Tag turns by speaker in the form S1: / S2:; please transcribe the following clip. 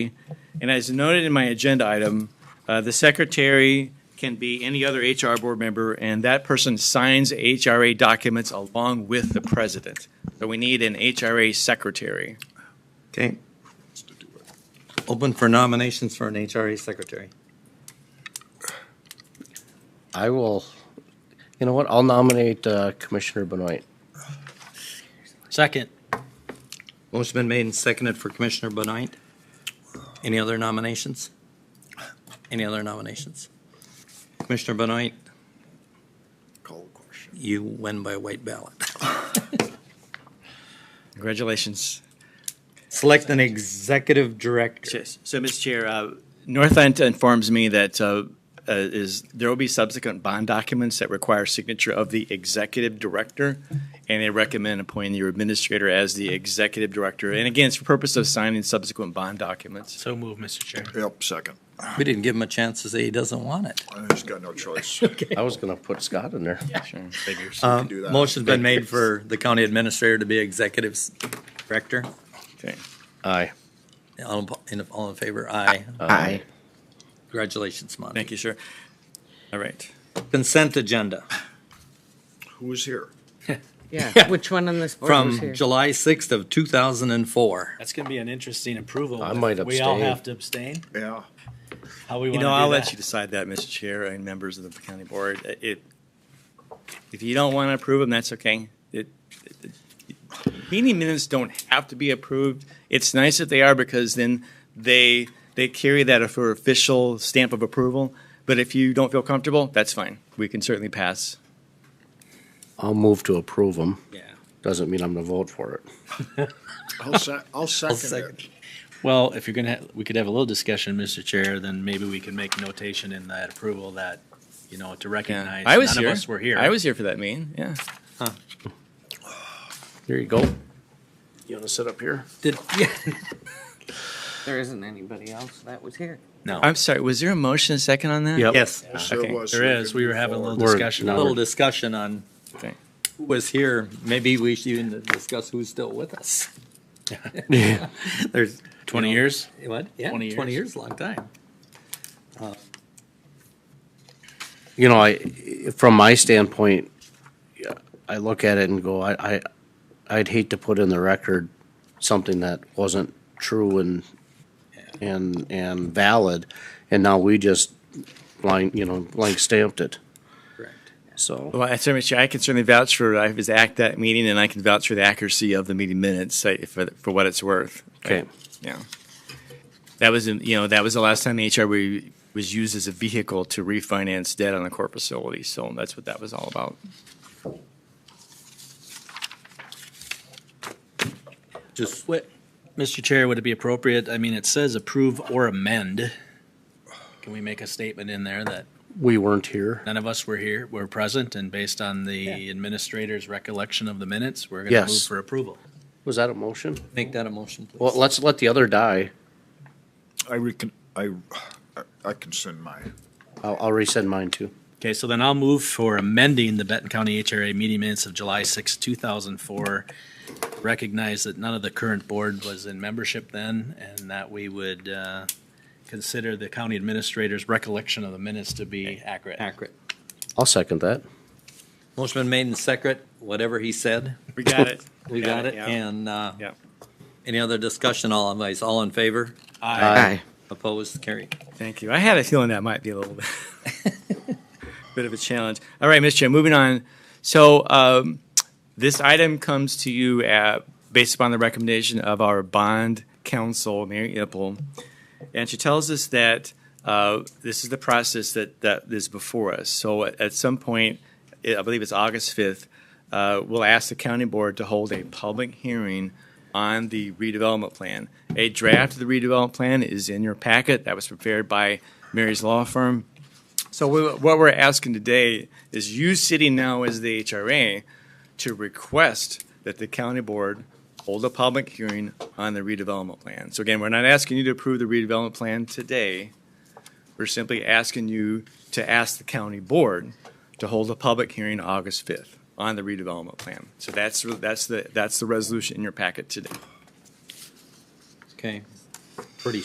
S1: And as noted in my agenda item, uh, the secretary can be any other HR board member, and that person signs HRA documents along with the president. So we need an HRA secretary.
S2: Okay. Open for nominations for an HRA secretary.
S3: I will, you know what, I'll nominate uh, Commissioner Benoit.
S4: Second.
S2: Motion been made and seconded for Commissioner Benoit. Any other nominations? Any other nominations? Commissioner Benoit,
S5: Call the question.
S2: you win by white ballot.
S1: Congratulations.
S2: Select an executive director.
S1: Yes. So, Ms. Chair, uh, North End informs me that uh, uh, is, there will be subsequent bond documents that require signature of the executive director, and they recommend appointing your administrator as the executive director. And again, it's for purpose of signing subsequent bond documents.
S4: So move, Mr. Chair.
S5: Yep, second.
S2: We didn't give him a chance to say he doesn't want it.
S5: I just got no choice.
S3: I was gonna put Scott in there.
S1: Sure. Figures.
S2: Um,
S5: do that.
S2: Motion's been made for the county administrator to be executive s- director.
S1: Okay.
S3: Aye.
S2: All in, all in favor? Aye.
S3: Aye.
S2: Congratulations, Monty.
S1: Thank you, sir. All right.
S2: Consent agenda
S5: Who's here?
S6: Yeah, which one on this board was
S2: from
S6: here?
S2: July 6th of 2004.
S4: That's going to be an interesting approval.
S3: I might
S4: We all
S3: abstain.
S4: have to abstain.
S5: Yeah.
S4: How we
S1: You
S4: want to do
S1: know, I'll let
S4: that?
S1: you decide that, Mr. Chair and members of the county board. Uh, It, if you don't want to approve them, that's okay. It, it- meeting minutes don't have to be approved. It's nice that they are because then they, they carry that for official stamp of approval. But if you don't feel comfortable, that's fine. We can certainly pass.
S3: I'll move to approve him.
S2: Yeah.
S3: Doesn't mean I'm gonna vote for it.
S5: I'll se- I'll second
S2: second.
S5: it.
S4: Well, if you're going to, we could have a little discussion, Mr. Chair, then maybe we can make notation in that approval that, you know, to
S1: Yeah.
S4: recognize
S1: I was
S4: none
S1: here.
S4: of us were here.
S1: I was here for that meeting, yeah.
S3: There you go. You wanna sit up here?
S2: Did, yeah.
S6: There isn't anybody else that was here.
S4: No.
S1: I'm sorry, was there a motion and second on that?
S3: Yep.
S2: Yes.
S5: Yes, there
S1: Okay.
S5: was.
S4: There is. We were having a little discussion
S2: A
S4: on
S2: little
S4: it.
S2: discussion on
S1: Okay.
S2: who was here. Maybe we should even discuss who's still with us. There's.
S4: 20 years?
S2: What? Yeah,
S4: 20 years.
S2: 20 years, long time.
S3: You know, I, from my standpoint, I look at it and go, I, I, I'd hate to put in the record something that wasn't true and, and, and valid, and now we just blank, you know, blank stamped it,
S2: Correct.
S3: so.
S1: Well, I certainly, I can certainly vouch for, I was at that meeting and I can vouch for the accuracy of the meeting minutes uh, for, for what it's worth.
S3: Okay.
S1: Yeah. That was, in- you know, that was the last time the HRB was used as a vehicle to refinance debt on a court facility. So that's what that was all about.
S2: Just,
S4: What, Mr. Chair, would it be appropriate, I mean, it says approve or amend. Can we make a statement in there that
S3: We weren't here.
S4: none of us were here, were present, and based on the administrator's recollection of the minutes, we're going to
S3: Yes.
S4: move for approval?
S3: Was that a motion?
S2: make that a motion, please.
S3: Well, let's let the other die.
S5: I recon, I, I- I consent my,
S3: I'll, I'll resend mine too.
S4: Okay, so then I'll move for amending the Benton County HRA meeting minutes of July 6, 2004. Recognize that none of the current board was in membership then, and that we would uh, consider the county administrator's recollection of the minutes to be accurate.
S2: Accurate.
S3: I'll second that.
S2: Motion been made and second, whatever he said,
S1: We got it.
S2: we got it.
S1: yeah.
S2: And, uh,
S1: Yeah.
S2: any other discussion, all advice, all in favor?
S3: Aye.
S2: Opposed, carried.
S1: Thank you. I had a feeling that might be a little bit, bit of a challenge. All right, Mr. Chair, moving on. So um, this item comes to you at, based upon the recommendation of our bond counsel, Mary Ipple, and she tells us that uh, this is the process that, that is before us. So at, at some point, I I believe it's August 5th, uh, we'll ask the county board to hold a public hearing on the redevelopment plan. A draft of the redevelopment plan is in your packet. That was prepared by Mary's Law Firm. So we, what we're asking today is you sitting now as the HRA to request that the county board hold a public hearing on the redevelopment plan. So again, we're not asking you to approve the redevelopment plan today. We're simply asking you to ask the county board to hold a public hearing August 5th on the redevelopment plan. So that's, that's the, that's the resolution in your packet today.
S2: Okay,